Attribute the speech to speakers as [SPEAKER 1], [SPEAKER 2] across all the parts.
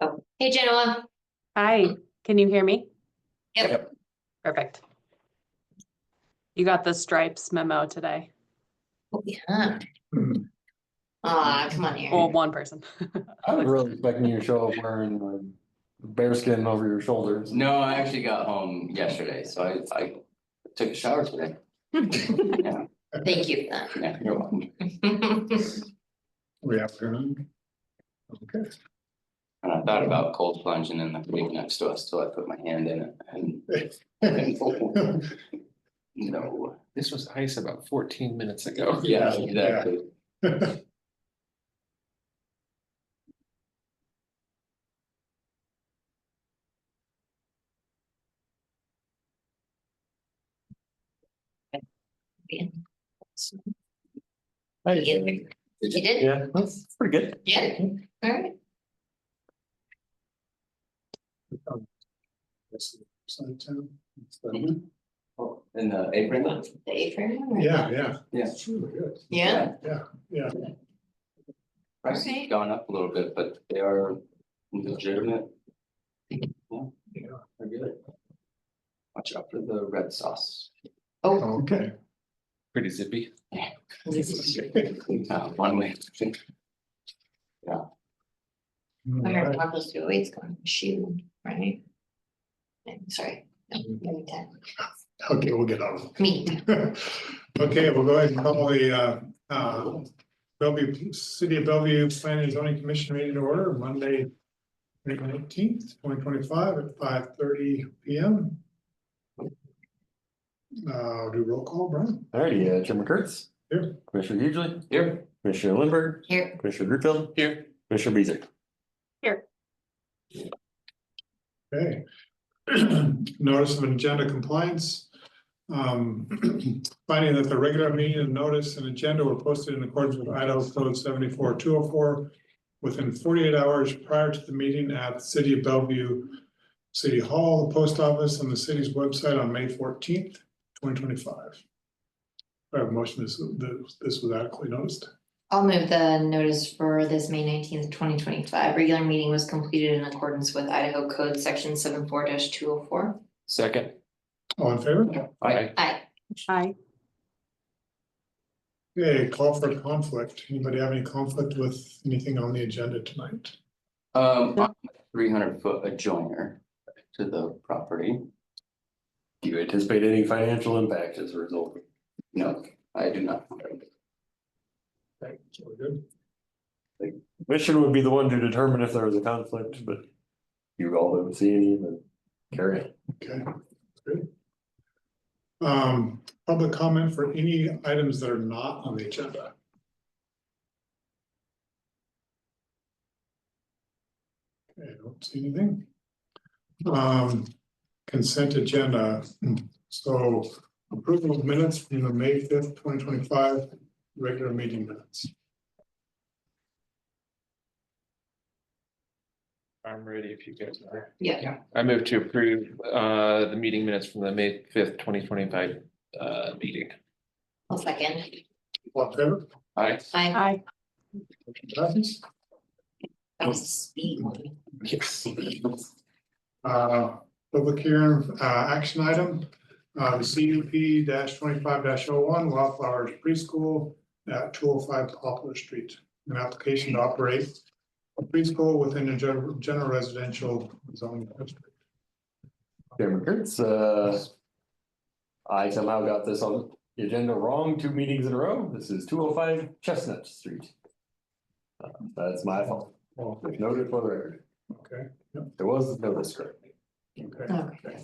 [SPEAKER 1] Oh, hey Genoa.
[SPEAKER 2] Hi, can you hear me?
[SPEAKER 1] Yep.
[SPEAKER 3] Yep.
[SPEAKER 2] Perfect. You got the stripes memo today,
[SPEAKER 1] Oh, Yeah.
[SPEAKER 3] Hmm.
[SPEAKER 1] Aw, come on here.
[SPEAKER 2] well, one person.
[SPEAKER 3] I was really expecting you to show up wearing like bearskin over your shoulders.
[SPEAKER 4] No, I actually got home yesterday, so I, I took a shower today. Yeah,
[SPEAKER 1] Thank you for
[SPEAKER 4] yeah, you're welcome.
[SPEAKER 1] that.
[SPEAKER 5] We have to. Okay,
[SPEAKER 4] And I thought about cold plunging in the creek next to us till I put my hand in it and. and- No,
[SPEAKER 3] This was ice about fourteen minutes ago.
[SPEAKER 4] yeah, exactly.
[SPEAKER 1] You you did?
[SPEAKER 3] Yeah, that's pretty good.
[SPEAKER 1] Yeah, all right.
[SPEAKER 5] Yeah,
[SPEAKER 4] Mhm. Oh, In the apron?
[SPEAKER 1] The apron.
[SPEAKER 5] yeah.
[SPEAKER 4] Yeah.
[SPEAKER 5] It's really good.
[SPEAKER 1] Yeah,
[SPEAKER 5] Yeah, yeah.
[SPEAKER 4] Price has
[SPEAKER 1] Okay.
[SPEAKER 4] gone up a little bit, but they are legitimate. Yeah,
[SPEAKER 5] Yeah.
[SPEAKER 4] they're good. Watch out for the red sauce.
[SPEAKER 1] oh.
[SPEAKER 5] Okay.
[SPEAKER 3] Pretty zippy.
[SPEAKER 4] Uh, One way.
[SPEAKER 1] I heard one of those two ways going, shoe, right? I'm sorry. No,
[SPEAKER 3] Mm-hmm.
[SPEAKER 1] maybe that.
[SPEAKER 5] Okay, we'll get on.
[SPEAKER 1] Me.
[SPEAKER 5] Okay, we'll go ahead and call the uh, uh, Bellevue, City of Bellevue Planning and Zoning Commission meeting to order Monday, April nineteenth, twenty twenty-five at five thirty P M. Uh, do roll call, Brian?
[SPEAKER 3] Alrighty, uh, Chairman Kurtz.
[SPEAKER 5] Here.
[SPEAKER 3] Commissioner Hughley,
[SPEAKER 4] Here.
[SPEAKER 3] Commissioner Lindberg,
[SPEAKER 1] Here,
[SPEAKER 3] Commissioner Greenfield,
[SPEAKER 4] Here.
[SPEAKER 3] Commissioner Beasley.
[SPEAKER 5] Okay. Notice of agenda compliance. Um, finding that the regular meeting and notice and agenda were posted in accordance with Idaho Code seventy-four two oh four within forty-eight hours prior to the meeting at the City of Bellevue, City Hall, the post office, and the city's website on May fourteenth, twenty twenty-five. I have a motion, this, this was adequately noticed.
[SPEAKER 1] I'll move the notice for this May nineteenth, twenty twenty-five. Regular meeting was completed in accordance with Idaho Code Section seven four two oh four.
[SPEAKER 3] Second.
[SPEAKER 5] All in favor?
[SPEAKER 4] Aye.
[SPEAKER 1] Aye.
[SPEAKER 2] Hi,
[SPEAKER 5] Okay, call for conflict. Anybody have any conflict with anything on the agenda tonight?
[SPEAKER 4] Um, three hundred foot adjoiner to the property.
[SPEAKER 3] Do you anticipate any financial impact as a result?
[SPEAKER 4] No, I do not.
[SPEAKER 5] Okay, so we're good.
[SPEAKER 3] Commission would be the one to determine if there was a conflict, but you all don't see any, then carry it.
[SPEAKER 5] Okay, good. Um, public comment for any items that are not on the agenda. Okay, I don't see anything. Um, consent agenda, so approval of minutes from the May fifth, twenty twenty-five, regular meeting minutes.
[SPEAKER 6] I'm ready if you guys are.
[SPEAKER 1] Yeah.
[SPEAKER 6] I move to approve uh the meeting minutes from the May fifth, twenty twenty five uh meeting.
[SPEAKER 1] I'll second.
[SPEAKER 5] All in favor?
[SPEAKER 4] Aye.
[SPEAKER 1] Aye.
[SPEAKER 2] hi.
[SPEAKER 5] Passes.
[SPEAKER 1] That was a speed one.
[SPEAKER 3] Yes.
[SPEAKER 5] Uh, public hearing, uh, action item, uh, the CUP twenty-five oh one Wildflowers Preschool at two oh five Poplar Street, an application to operate a preschool within a general, general residential zoning district.
[SPEAKER 3] Chairman Kurtz, uh. I somehow got this on the agenda wrong two meetings in a row. This is two oh five Chestnut Street. Uh, That's my fault.
[SPEAKER 5] Well,
[SPEAKER 3] Noted for the record.
[SPEAKER 5] Okay,
[SPEAKER 3] There was notice correctly.
[SPEAKER 5] okay,
[SPEAKER 1] Okay.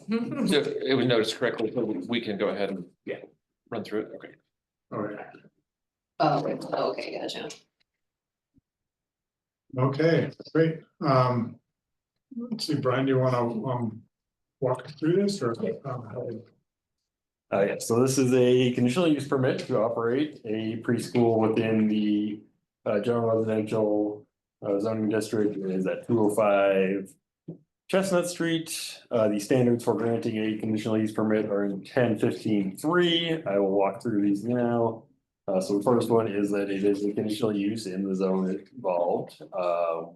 [SPEAKER 6] So it was noticed correctly, so we can go ahead and yeah, run through it. Okay.
[SPEAKER 5] all right,
[SPEAKER 1] Oh, wait, okay, gotcha.
[SPEAKER 5] okay, great, um. Let's see, Brian, do you wanna, um, walk us through this or? um,
[SPEAKER 3] Uh, yeah, so this is a conditional use permit to operate a preschool within the uh general residential uh, zoning district It is at two oh five Chestnut Street. Uh, the standards for granting a conditional use permit are in ten fifteen three. I will walk through these now. Uh, so the first one is that it is a conditional use in the zone involved, uh,